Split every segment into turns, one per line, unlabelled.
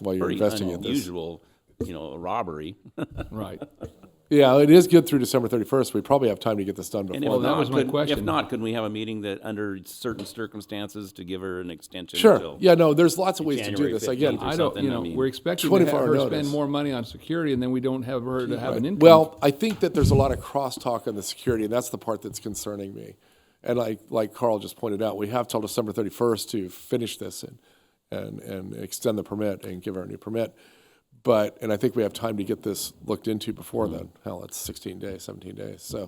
while you're
very
investing this.
unusual, you know, robbery.
Right.
Yeah, it is good through December 31st. We probably have time to get this done
And
before.
if
that
not,
was my
could- If
question.
not, could we have a meeting that, under certain circumstances, to give her an extension?
Sure,
until-
yeah, no, there's lots of ways to do
January
this.
15th.
Again,
or
I don't,
something,
you
I
know,
mean-
we're expecting to have
24
her
notice.
spend more money on security and then we don't have her to have an income.
Well, I think that there's a lot of crosstalk on the security, and that's the part that's concerning me. And like, like Carl just pointed out, we have till December 31st to finish this and, and, and extend the permit and give her a new permit. But, and I think we have time to get this looked into before
Mm-hmm.
then. Hell, it's 16 days, 17 days, so.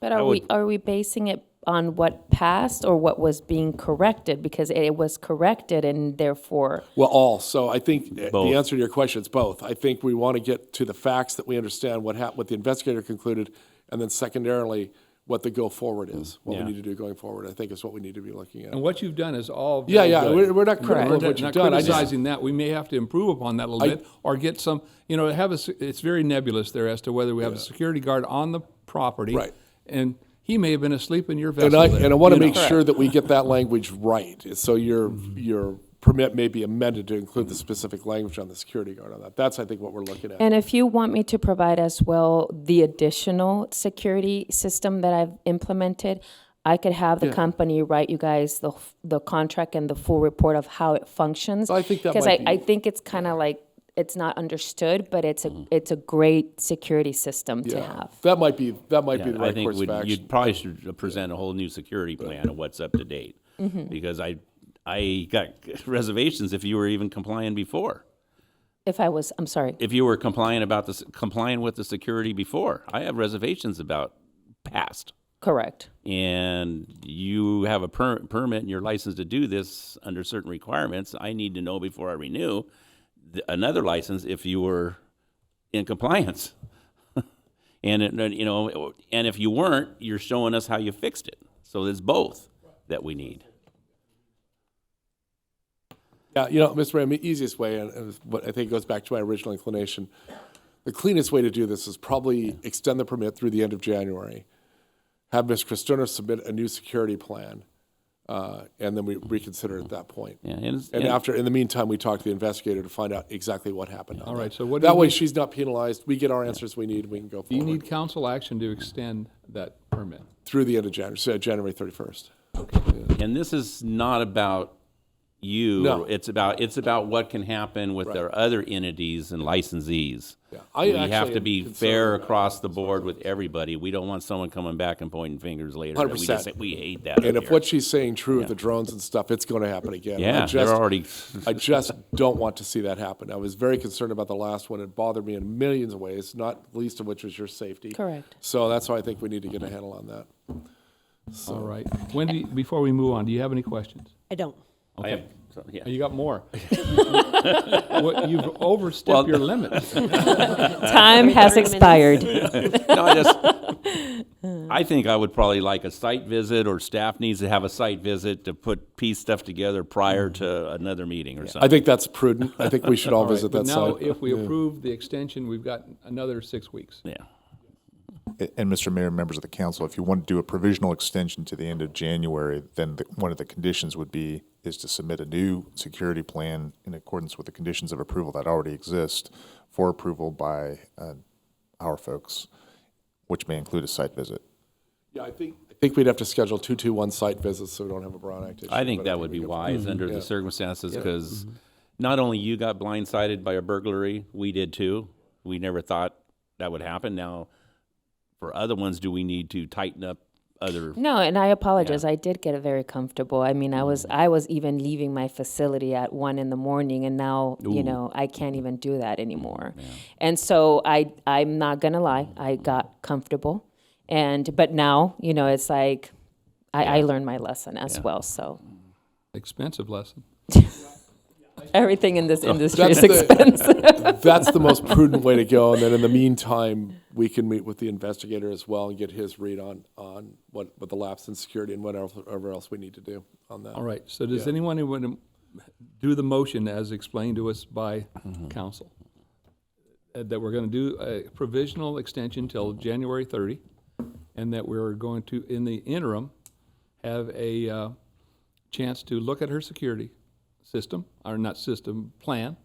But are we, are we basing it on what passed or what was being corrected? Because it was corrected and therefore,
Well, all. So I think
Both.
the answer to your question is both. I think we want to get to the facts that we understand what hap- what the investigator concluded, and then secondarily what the go forward is, what
Yeah.
we need to do going forward. I think is what we need to be looking at.
And what you've done is all.
Yeah,
very
yeah,
good.
we're- we're not critical
we're
of what
not-
you've done, I
Not
just-
criticizing that. We may have to improve upon that a little bit or get some, you know, have a, se- it's very nebulous there as to whether we have a security guard on the property.
Right.
And he may have been asleep in your
And
vessel.
I
there,
and I want to
you know.
make sure that we get that language right. So your
Mm-hmm.
your permit may be amended to include the specific language on the security guard on that. That's I think what we're looking at.
and if you want me to provide as well the additional security system that I've implemented, I could have the company write you guys the, f- the contract and the full report of how it functions.
I think that
Because
might
I,
be-
I think it's kind of like, it's not understood, but it's a, it's a great security system to
Mm. Yeah.
have.
That might be that might be the
Yeah, I
right
think
course of
we'd-
action.
you'd probably should present a whole new security plan of what's up to date.
Mm-hmm.
Because I, I got reservations if you were even complying before.
If I was, I'm sorry.
If you were complying about the, s- complying with the security before, I have reservations about past.
Correct.
And you have a per- permit and you're licensed to do this under certain requirements. I need to know before I renew th- another license if you were in compliance. And it, you know, and if you weren't, you're showing us how you fixed it. So it's both that we need.
Yeah, you know, Mr. Mayor, the easiest way, and, and what I think goes back to my original inclination, the cleanest way to do this is probably extend the permit through the end of January, have Ms. Cristerna submit a new security plan, uh, and then we reconsider at that point.
Yeah, and, it's-
And
and-
after, in the meantime, we talk to the investigator to find out exactly what happened. on
All
that.
right, so what do
That
we
way,
need-
she's not penalized. We get our answers we need. We can go
Do you
forward
need council action to extend that permit?
through the end of January, so January 31st.
and this is not about you.
No.
It's about it's about what can happen with our other entities and licensees.
Yeah, I
we
actually
have to
am
be
concerned
fair across the board with everybody. We don't want someone coming back and pointing fingers later. that We
100%.
just we hate that.
And
up
if
here.
what she's saying true with the drones and stuff, it's going to happen again. I
yeah,
just-
they're already
I just don't want to see that happen. I was very concerned about the last one. It bothered me in millions of ways, not least of which was your safety.
Correct.
So that's why I think we need to get a handle on that.
All right. Wendy, before we move on, do you have any questions?
I don't.
I am, so, yeah.
Oh, You got more. What- You've overstepped your limits.
Time has
Thirty minutes.
expired.
no, I just, I think I would probably like a site visit, or staff needs to have a site visit to put piece stuff together prior
Mm-hmm.
to another meeting or
I
something.
think that's prudent. I think we should all
All right,
visit
but
that
Now,
site.
if we approve the extension, we've got another six weeks.
Yeah,
A- And Mr. Mayor, members of the council, if you want to do a provisional extension to the end of January, then the- one of the conditions would be, is to submit a new security plan in accordance with the conditions of approval that already exist for approval by uh, our folks, which may include a site visit.
Yeah, I think, I think we'd have to schedule two-two-one site visits so we don't have a Brown Act issue.
I think
but
that would be
we could-
wise under the circumstances, because not only you got blindsided by a burglary, we did too. We never thought that would happen. Now, for other ones, do we need to tighten up other?
No, and I apologize. I did get very comfortable. I mean, I
Mm.
was I was even leaving my facility at one in the morning, and now you know I can't even do that anymore. And so I I'm not gonna lie,
Mm-hmm.
I got comfortable, and but now you know it's like I, I learned my lesson as well. So
Expensive lesson.
everything in this industry
That's
is
the-
expensive.
That's the most prudent way to go. And then in the meantime, we can meet with the investigator as well and get his read on, on what, what the lapse in security and whatever else we need to do on that.
All right, so does anyone who want to do the motion as explained to us by council? Uh, That we're going to do a provisional extension till January 30, and that we're going to, in the interim, have a uh, chance to look at her security system, or not system, plan,